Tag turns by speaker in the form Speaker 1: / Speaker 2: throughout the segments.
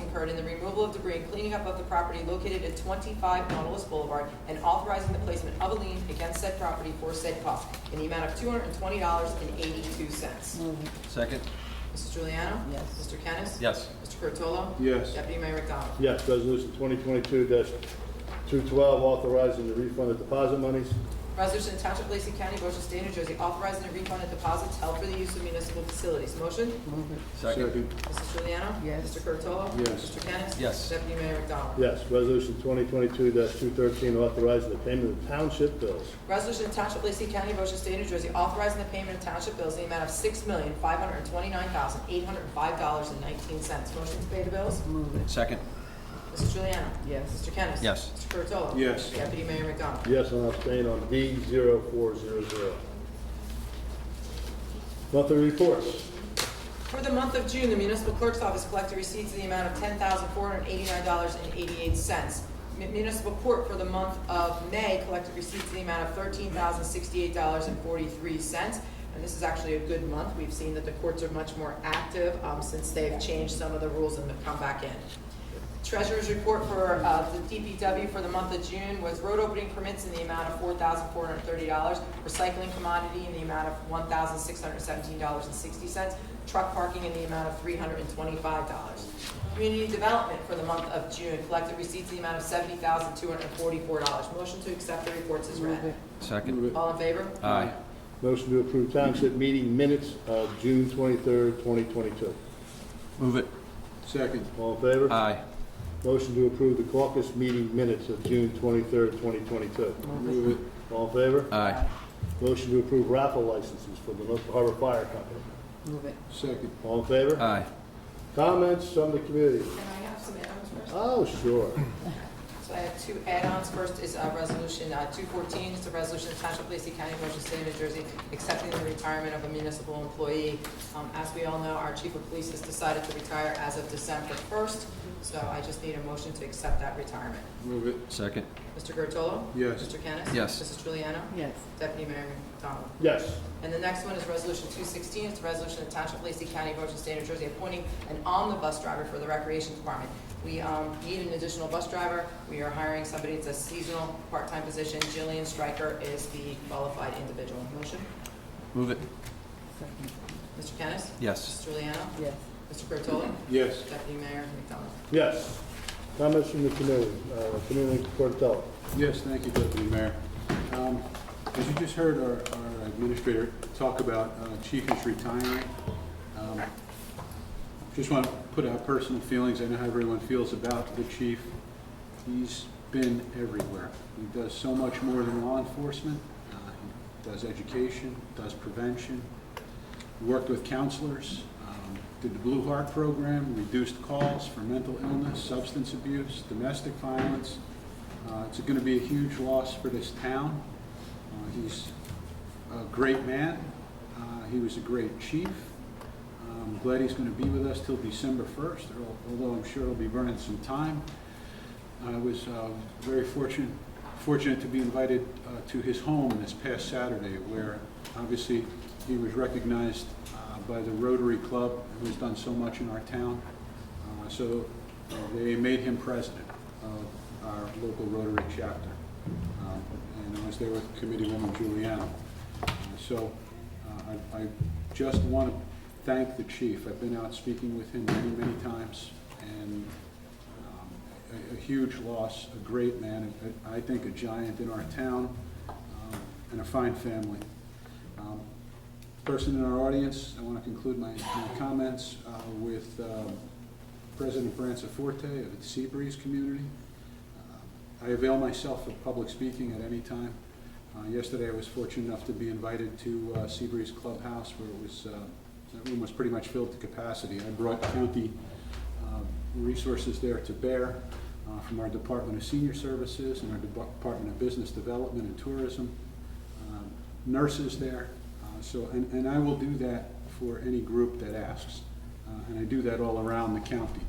Speaker 1: incurred in the removal of debris and cleaning up of the property located at 25 Nautilus Boulevard and authorizing the placement of a lien against said property for said cost in the amount of $220.82.
Speaker 2: Move it.
Speaker 3: Second?
Speaker 1: Mrs. Juliana?
Speaker 2: Mm. Yes.
Speaker 1: Mr. Kennis?
Speaker 3: Yes.
Speaker 1: Mr. Curatolo?
Speaker 4: Yes.
Speaker 1: Deputy Mayor McDonald?
Speaker 4: Yes, resolution twenty twenty-two two twelve, authorizing the refund of deposit monies.
Speaker 1: Resolution to Township of Lacey County, Ocean State, New Jersey, authorizing the refund of deposits held for the use of municipal facilities. Motion?
Speaker 2: Move it.
Speaker 3: Second?
Speaker 1: Mrs. Juliana?
Speaker 2: Mm. Yes.
Speaker 1: Mr. Curatolo?
Speaker 4: Yes.
Speaker 1: Mr. Kennis?
Speaker 3: Yes.
Speaker 1: Deputy Mayor McDonald?
Speaker 4: Yes, resolution twenty twenty-two two thirteen, authorizing the payment of township bills.
Speaker 1: Resolution of Township of Lacey County, Ocean State, New Jersey, authorizing the payment of township bills in the amount of six million, five hundred and twenty-nine thousand, eight hundred and five dollars and nineteen cents. Motion to pay the bills?
Speaker 2: Move it.
Speaker 3: Second?
Speaker 1: Mrs. Juliana?
Speaker 2: Yes.
Speaker 1: Mr. Kennis?
Speaker 3: Yes.
Speaker 1: Mr. Curatolo?
Speaker 4: Yes.
Speaker 1: Deputy Mayor McDonald?
Speaker 4: Yes, and I'll abstain on D 400 Monthly reports.
Speaker 1: For the month of June, the municipal clerk's office collected receipts in the amount of ten thousand four hundred eighty-nine dollars and eighty-eight cents. Municipal court for the month of May collected receipts in the amount of thirteen thousand sixty-eight dollars and forty-three cents. And this is actually a good month. We've seen that the courts are much more active, um, since they've changed some of the rules and have come back in. Treasurer's report for uh, the DPW for the month of June was road opening permits in the amount of $4,430, recycling commodity in the amount of $1,617.60, truck parking in the amount of $325. Community development for the month of June collected receipts in the amount of $70,244. Motion to accept the reports is
Speaker 2: Move
Speaker 1: read.
Speaker 2: it.
Speaker 3: Second?
Speaker 1: All in favor?
Speaker 3: Aye.
Speaker 4: Motion to approve township meeting minutes of June twenty-third, twenty twenty-two.
Speaker 3: Move it.
Speaker 4: Second. All in favor?
Speaker 3: Aye.
Speaker 4: Motion to approve the caucus meeting minutes of June twenty-third, twenty twenty-two. Move it. All in favor?
Speaker 3: Aye.
Speaker 4: Motion to approve raffle licenses for the North Harbor Fire Company.
Speaker 2: Move it.
Speaker 4: Second. All in favor?
Speaker 3: Aye.
Speaker 4: Comments from the committee?
Speaker 1: Can I have some add-ons first?
Speaker 4: Oh, sure.
Speaker 1: So I have two add-ons. First is uh, Resolution uh, 214. It's a resolution of Township of Lacey County, Ocean State, New Jersey, accepting the retirement of a municipal employee. Um, As we all know, our chief of police has decided to retire as of December 1st, so I just need a motion to accept that retirement.
Speaker 5: Move it,
Speaker 3: Second?
Speaker 1: Mr. Gertolo?
Speaker 5: Yes.
Speaker 1: Mr. Kennis?
Speaker 3: Yes.
Speaker 1: Mrs. Juliana?
Speaker 2: Yes.
Speaker 1: Deputy Mayor McDonald?
Speaker 4: Yes.
Speaker 1: And the next one is Resolution 216, it's a resolution of Township of Lacey County, Ocean State, New Jersey, appointing an omnibus driver for the Recreation Department. We um, need an additional bus driver, we are hiring somebody, it's a seasonal, part-time position, Jillian Stryker is the qualified individual. Motion?
Speaker 3: Move it.
Speaker 2: Second.
Speaker 1: Mr. Kennis? Mrs.
Speaker 3: Yes.
Speaker 1: Juliana?
Speaker 2: Yes.
Speaker 1: Mr. Curatolo?
Speaker 5: yes.
Speaker 1: Deputy Mayor McDonald?
Speaker 4: Yes. Comments from the committee? Uh, Committee Cortella.
Speaker 5: Yes, thank you, Deputy Mayor. Um, As you just heard our our administrator talk about uh, Chief is retiring, um, just want to put out personal feelings, I know how everyone feels about the chief. He's been everywhere. He does so much more than law enforcement, Uh, he does education, does prevention, worked with counselors, um, did the Blue Heart Program, reduced calls for mental illness, substance abuse, domestic violence. Uh, It's going to be a huge loss for this town. Uh, He's a great man. Uh, He was a great chief. Uh, I'm glad he's going to be with us till December 1st, although I'm sure he'll be burning some time. I was uh, very fortunate, fortunate to be invited uh, to his home this past Saturday, where obviously he was recognized uh, by the Rotary Club, who's done so much in our town. Uh, So uh, they made him president of our local Rotary chapter. Um, And I was there with Committeewoman Juliana. Uh, So uh, I I just want to thank the chief. I've been out speaking with him many, many times, and um, a- a huge loss, a great man, a- I think a giant in our town, um, and a fine family. Um, Person in our audience, I want to conclude my my comments uh, with um, President Branciforte of the Seabreeze community. Uh, I avail myself of public speaking at any time. Uh, Yesterday, I was fortunate enough to be invited to uh, Seabreeze Clubhouse, where it was, uh, that room was pretty much filled to capacity. I brought county um, resources there to bear uh, from our Department of Senior Services and our Depar- Department of Business Development and Tourism, um, nurses there. Uh, So, and, and I will do that for any group that asks, Uh, and I do that all around the county.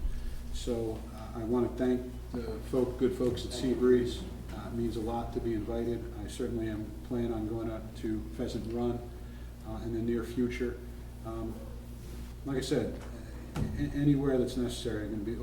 Speaker 5: So uh, I want to thank the folk, good folks at Sea Breeze. Uh, It means a lot to be invited. I certainly am planning on going out to Pheasant Run uh, in the near future. Um, like I said, a- a- anywhere that's necessary, I'm gonna be